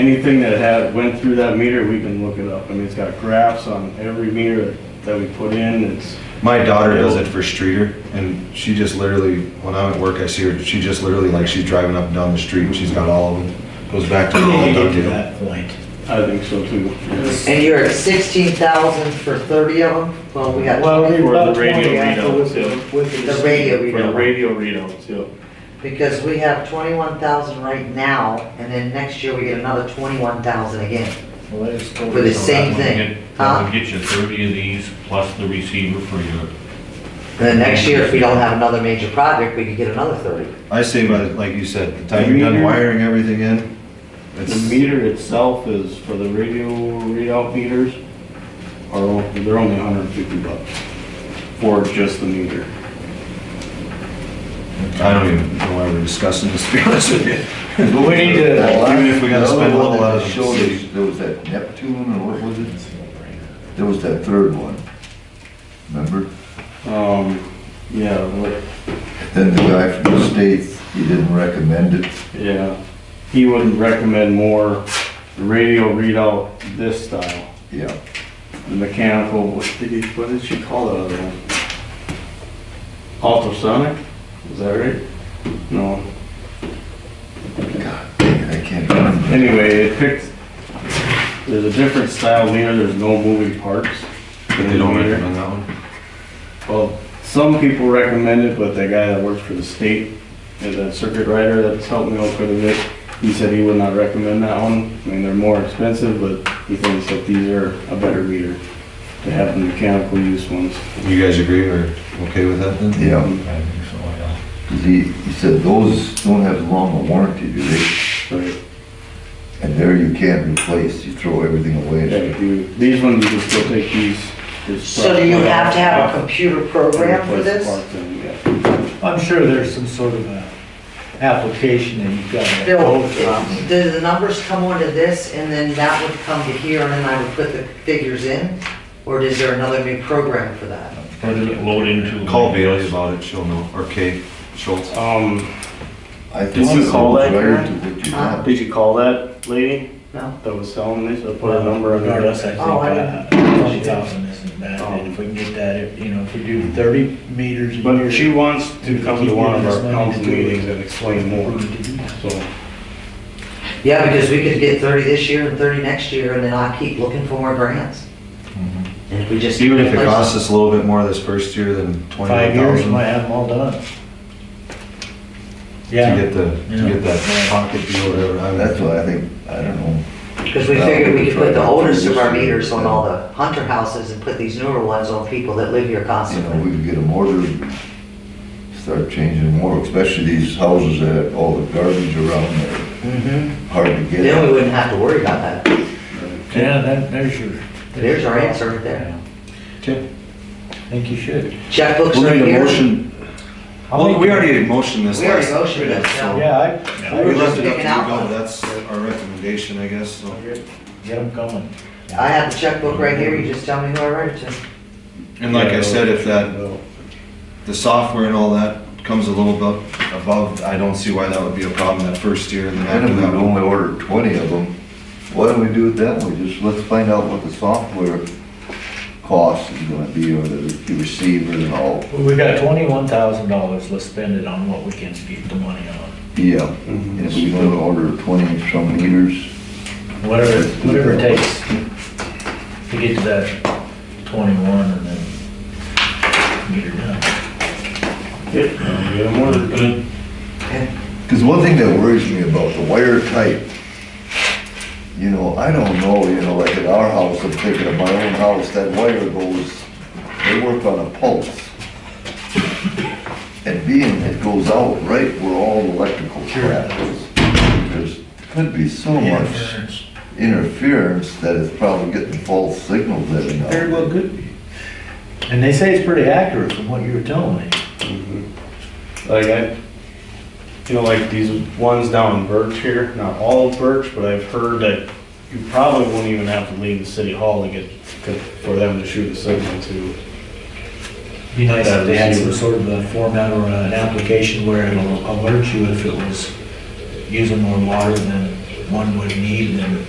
Anything that had, went through that meter, we can look it up. I mean, it's got graphs on every meter that we put in, it's, My daughter does it for Streeter, and she just literally, when I'm at work, I see her, she just literally, like, she's driving up and down the street, and she's got all of them. Goes back to the You old get dog to deal. that point. I think so too. And you're at sixteen thousand for thirty of them? Well, we got Well, we Or got the radio 20 after readouts, with the- yeah. with the- the radio For the readout, radio readouts, yeah. because we have twenty-one thousand right now, and then next year we get another twenty-one thousand again. Well, that is totally For wrong. the same That would thing. get- That would get you thirty of these plus the receiver for your, And then next year, if we don't have another major project, we could get another thirty. I say, by the- like you said, the time you're done Meter. wiring everything in, The it's, meter itself is, for the radio readout meters, are, they're only hundred and fifty bucks for just the meter. I don't even know why we're discussing this, to be honest with you. But we need to. Even if we gotta spend a little out of Another one that the showed city. us, There was that Neptune, or what was it? There was that third one, remember? Um, yeah, like, Then the guy from the state, he didn't recommend it. yeah, he wouldn't recommend more radio readout this style, Yeah, the mechanical, what did he, what did she call that other one? Ultrasonic, is that right? No, God, I can't remember. anyway, it picks, there's a different style meter, there's no moving parts. They don't recommend that one. Well, some people recommend it, but the guy that works for the state, is a circuit rider that's helped me out quite a bit, he said he would not recommend that one. I mean, they're more expensive, but he thinks that these are a better meter to have the mechanical use ones. You guys agree or okay with that then? Yeah, I think so, yeah. 'cause he, he said those don't have long a warranty, do they? Right. And there you can't replace, you throw everything Yeah, away. if you- These ones, you can still take these. There's So do you parts- have to have a computer program for Replace the this? parts in, yeah. I'm sure there's some sort of a application that you've got to Bill, go from. it- do the numbers come onto this, and then that would come to here, and then I would put the figures in? Or is there another new program for that? or does it load into? Call Bailey about it, she'll know, or Kay Schultz. Um, I Did thought you it was call that, right Karen? to what you got. Um, did you call that lady No? that was selling these, I put a number on her Regardless, desk? I think Oh, I uh, twenty thousand isn't bad, and if we can get that, if, you know, if we do thirty meters a year. But she wants to come to one of our Keep giving us money council to do it. meetings and explain more, so. Yeah, because we could get thirty this year and thirty next year, and then I keep looking for more grants. And we just. Mm-hmm. Even if it replace costs them. us a little bit more this first year than Five twenty-nine years, we thousand might to have them all done. Yeah, get the, to get that pocket deal, whatever. I mean, That's why I think, I don't know. Because we figured we could put the oldest of our meters on all the hunter houses and put these newer ones on people that live here you know, constantly. we could get them ordered, start changing more, especially these houses that have all the garbage around there, Mhm. hard to get. Then we wouldn't have to worry about that. yeah, that, there's your. There's our answer right there. Okay. I think you should. Checkbooks We'll right need a here. motion. Well, we already motioned this We already last. motioned it, yeah. Yeah, I, I We would left just it up to Taking out you, one. go, that's our recommendation, I guess, so. get them going. I have the checkbook right here, you just tell me who I write it to. And like I said, if that, the software and all that comes a little bit above, I don't see why that would be a problem that first year, and then And after if we that, we'll only ordered twenty of them, why don't we do it that way? Just let's find out what the software cost is gonna be, or the the receiver and all. Well, We got twenty-one thousand dollars, let's spend it on what we can get the money on. Yeah, Mhm. and if we only order twenty some meters, Whatever, whatever it takes to get to that twenty-one and then get it done. Yep, get them ordered. Good. Because one thing that worries me about the wire type, you know, I don't know, you know, like at our house, I'm thinking of my own house, that wire goes, they work on a pulse. And being it goes out right where all electrical crap is, there's, could be so much Interference. interference that it's probably getting false signals every now Very and well then. could be. And they say it's pretty accurate from what you were telling me. Like I, you know, like these ones down in Birch here, not all of Birch, but I've heard that you probably won't even have to leave the city hall to get, to- for them to shoot a signal to. Be nice if they had some sort of a format or an application where it'll alert you if it was using more water than one would need, and then